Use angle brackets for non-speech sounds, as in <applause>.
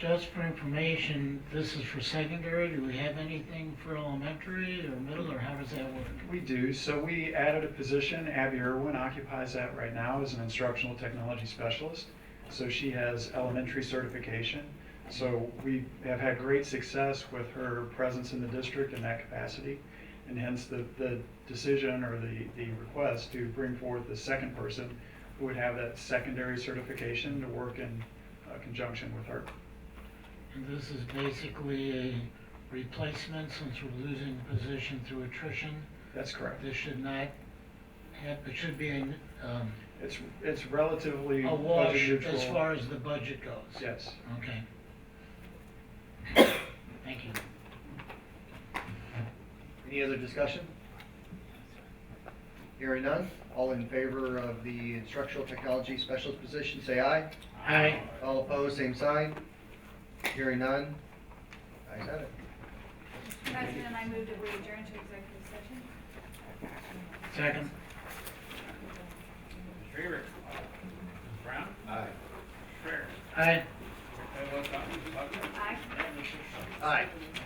just for information, this is for secondary, do we have anything for elementary or middle, or how does that work? We do, so we added a position, Abby Irwin occupies that right now as an instructional technology specialist. So she has elementary certification. So we have had great success with her presence in the district in that capacity. And hence the, the decision or the, the request to bring forth the second person who would have that secondary certification to work in uh, conjunction with her. And this is basically a replacement, since we're losing the position through attrition, That's correct. this should not have, it should be an, um, It's, it's relatively a budget wash neutral. as far as the budget goes. Yes. Okay. <coughs> Thank you. Any other discussion? Hearing none, all in favor of the instructional technology specialist position, say aye. Aye. All opposed, same sign. Hearing none, ayes have it. Mr. President, I move that we adjourn to executive session. Second. Favorite. uh, Brown? Aye. Fair. uh, Aye. Fairwell, Buckner, Buckner. Aye. Aye.